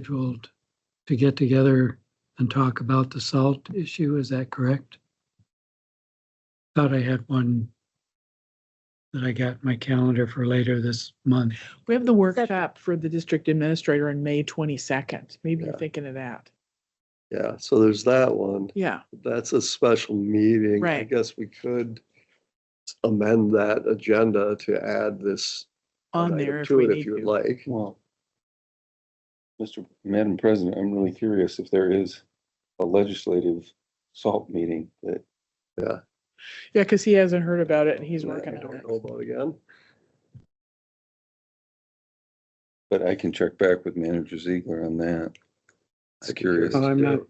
scheduled to get together and talk about the salt issue. Is that correct? Thought I had one that I got in my calendar for later this month. We have the workshop for the district administrator on May twenty-second. Maybe you're Yeah. thinking of that. Yeah, so there's that one. Yeah, That's a special meeting. I Right. guess we could amend that agenda to add this on item there if to we it need If you'd to. like. Well, Mr. Madam President, I'm really curious if there is a legislative salt meeting that Yeah, because he hasn't heard about it and he's that I working on don't it. know about again. But I can check back with Manager Ziegler on that. It's I'd be curious. curious Well, to I'm do not- it.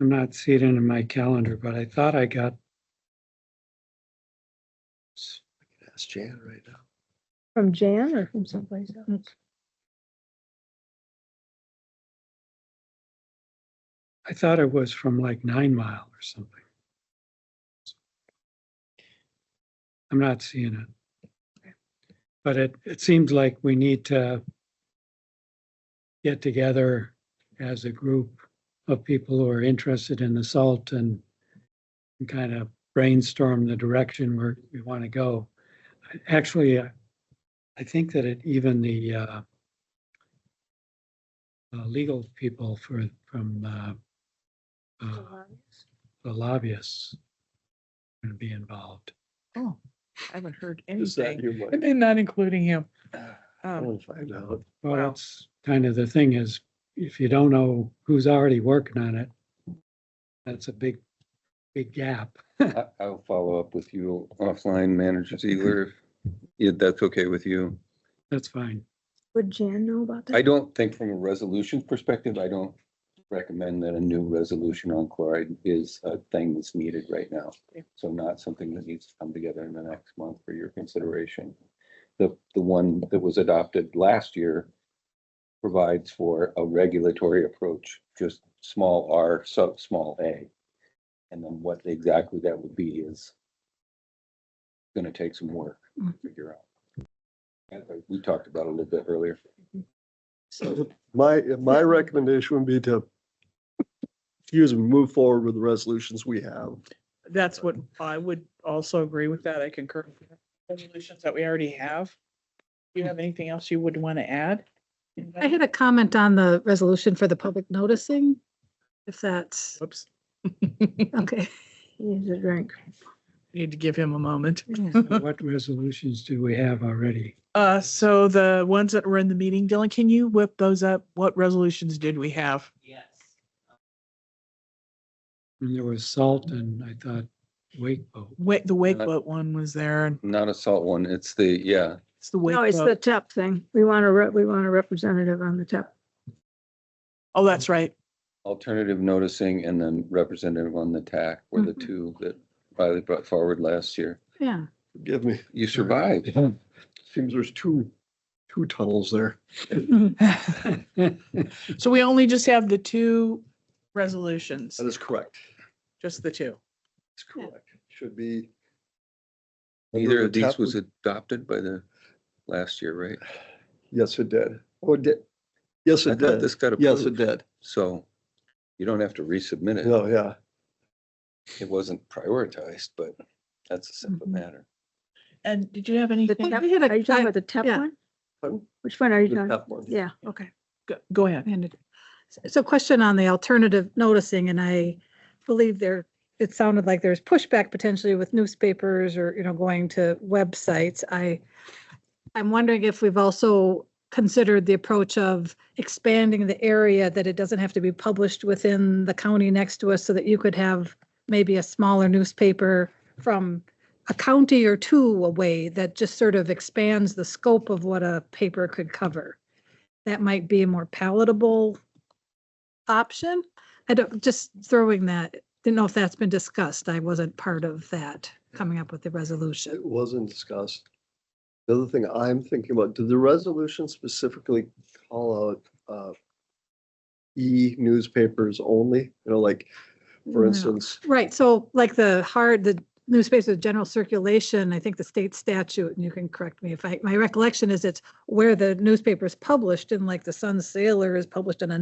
I'm not seeing it in my calendar, but I thought I got, Ask Jan right now. From Jan or from someplace else? I thought it was from like Nine Mile or something. I'm not seeing it. But it, it seems like we need to get together as a group of people who are interested in the salt and and kind of brainstorm the direction where we want to go. I- Actually, I I think that it, even the uh, uh, legal people for, from uh, uh, the lobbyists going to be involved. Oh, I haven't heard Is that anything. you, Oh. Mike? And then not including him. I Um, want to find out. Well, Wow. that's kind of the thing is, if you don't know who's already working on it, that's a big, big gap. I- I'll follow up with you offline, Manager Ziegler, if- if that's okay with you. That's fine. Would Jan know about that? I don't think from a resolution perspective, I don't recommend that a new resolution on chloride is a thing that's needed right now. So not something that needs to come together in the next month for your consideration. The, the one that was adopted last year provides for a regulatory approach, just small r sub small a. And then what exactly that would be is gonna take some work to figure out. And, uh, We talked about it a little bit earlier. My, my recommendation would be to use and move forward with the resolutions we have. That's what I would also agree with that. I concur. with that. Resolutions that we already have. Do you have anything else you would want to add? I had a comment on the resolution for the public noticing, if that's, Whoops. okay. He needs a drink. Need to give him a moment. What resolutions do we have already? Uh, so the ones that were in the meeting, Dylan, can you whip those up? What resolutions did we have? Yes. And there was salt and I thought wake boat. Wait, the wake Uh, boat one was there and Not a salt one, it's the, yeah, it's the wake No, it's the boat. TEP thing. We want a, re- we want a representative on the TEP. Oh, that's right. alternative noticing and then representative on the TAC were the Mhm. two that Riley brought forward last year. Yeah, Give me, You survived. seems there's two, two tunnels there. So we only just have the two resolutions, That is correct. just the two. That's correct. Should be. Neither of Tap these was adopted by the last year, right? Yes, it did. Oh, it did. Yes, I it thought did. this got Yes, it approved, did. so you don't have to resubmit it. No, yeah. It wasn't prioritized, but that's a simple Mhm. matter. And did you have The anything? TEP, we Oh, had a- are you talking about the TEP yeah. one? Pardon? Which one are you The talking? tap one. Yeah, okay. Go- Go ahead. And it- So question on the alternative noticing, and I believe there, it sounded like there's pushback potentially with newspapers or, you know, going to websites. I, I'm wondering if we've also considered the approach of expanding the area, that it doesn't have to be published within the county next to us, so that you could have maybe a smaller newspaper from a county or two away that just sort of expands the scope of what a paper could cover that might be a more palatable option. I don't, just throwing that, didn't know if that's been discussed. I wasn't part of that, coming up with the resolution. It wasn't discussed. The other thing I'm thinking about, did the resolution specifically call out uh, e-newspapers only? You know, like, for No. instance, Right, so like the hard, the newspapers of general circulation, I think the state statute, and you can correct me if I, my recollection is it's where the newspaper is published and like the Sun Sailor is published in a